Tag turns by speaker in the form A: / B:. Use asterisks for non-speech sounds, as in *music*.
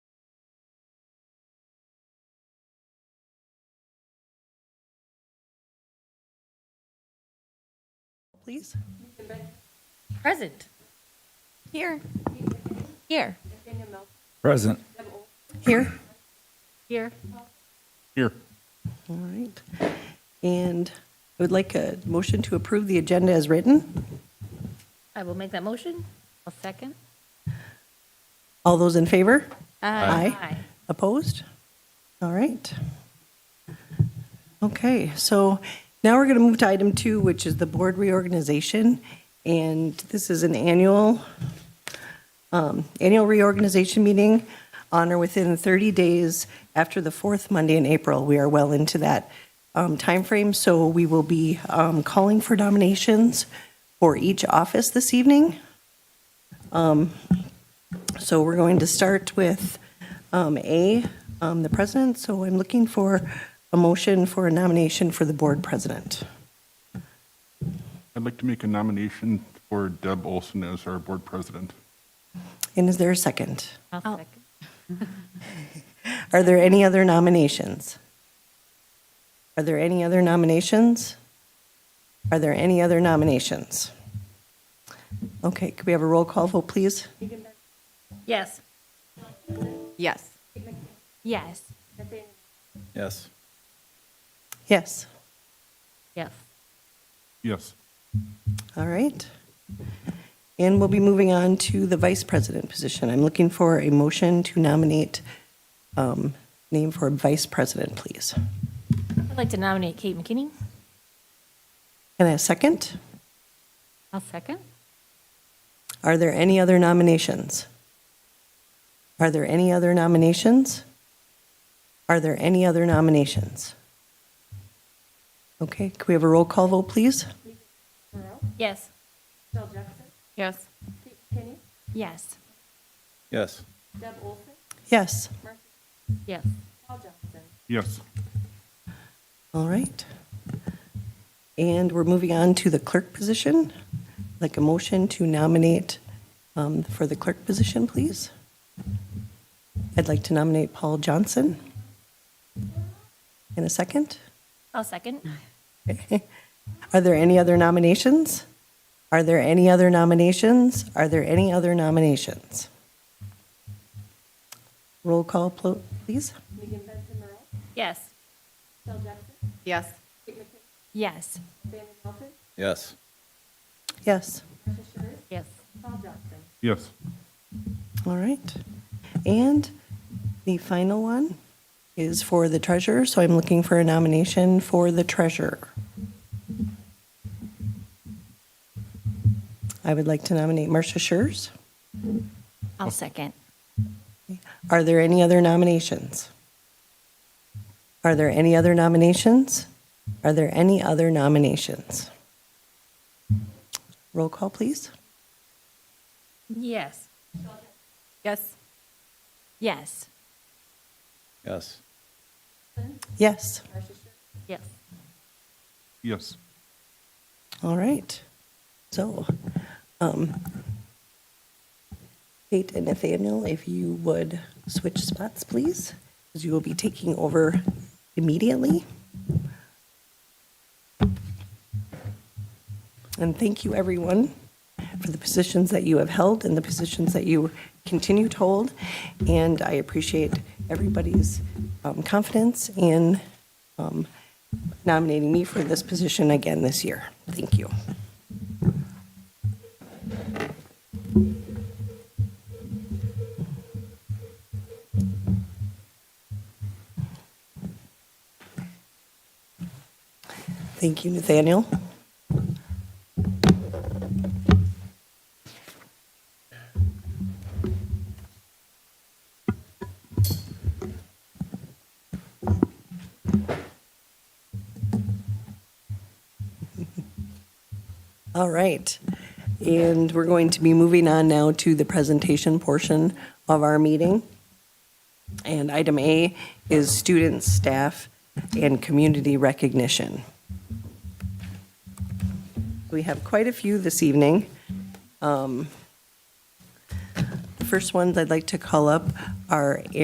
A: please.
B: Present. Here. Here.
C: Present.
A: Here.
B: Here.
C: Here.
A: All right. And I would like a motion to approve the agenda as written.
B: I will make that motion. A second.
A: All those in favor?
B: Aye.
A: Opposed? All right. Okay, so now we're going to move to item two, which is the board reorganization. And this is an annual, um, annual reorganization meeting on or within 30 days after the fourth Monday in April. We are well into that um, timeframe, so we will be um, calling for nominations for each office this evening. So we're going to start with um, A, um, the president. So I'm looking for a motion for a nomination for the board president.
D: I'd like to make a nomination for Deb Olson as our board president.
A: And is there a second?
B: I'll second.
A: Are there any other nominations? Are there any other nominations? Are there any other nominations? Okay, could we have a roll call vote, please?
B: Yes.
E: Yes.
B: Yes.
C: Yes.
A: Yes.
B: Yes.
D: Yes.
A: All right. And we'll be moving on to the vice president position. I'm looking for a motion to nominate, um, name for vice president, please.
B: I'd like to nominate Kate McKinney.
A: And a second?
B: I'll second.
A: Are there any other nominations? Are there any other nominations? Are there any other nominations? Okay, could we have a roll call vote, please?
B: Yes.
E: Yes.
B: Yes.
C: Yes.
A: Yes.
B: Yes.
D: Yes.
A: All right. And we're moving on to the clerk position. Like a motion to nominate um, for the clerk position, please. I'd like to nominate Paul Johnson. In a second.
B: I'll *laughs* second.
A: Are there any other nominations? Are there any other nominations? Are there any other nominations? Roll call, plo- please.
B: Yes.
E: Yes.
B: Yes.
C: Yes.
A: Yes.
B: Yes.
D: Yes.
A: All right. And the final one is for the treasurer, so I'm looking for a nomination for the treasurer. I would like to nominate Marcia Schurz.
B: I'll second.
A: Are there any other nominations? Are there any other nominations? Are there any other nominations? Roll call, please.
B: Yes.
E: Yes.
B: Yes.
C: Yes.
A: Yes.
B: Yes.
D: Yes.
A: All right. So, um, Kate and Nathaniel, if you would switch spots, please, because you will be taking over immediately. And thank you, everyone, for the positions that you have held and the positions that you continue to hold. And I appreciate everybody's um, confidence in um, nominating me for this position again this year. Thank you. Thank you, Nathaniel. All right. And we're going to be moving on now to the presentation portion of our meeting. And item A is students, staff, and community recognition. We have quite a few this evening. Um, The first ones I'd like to call up are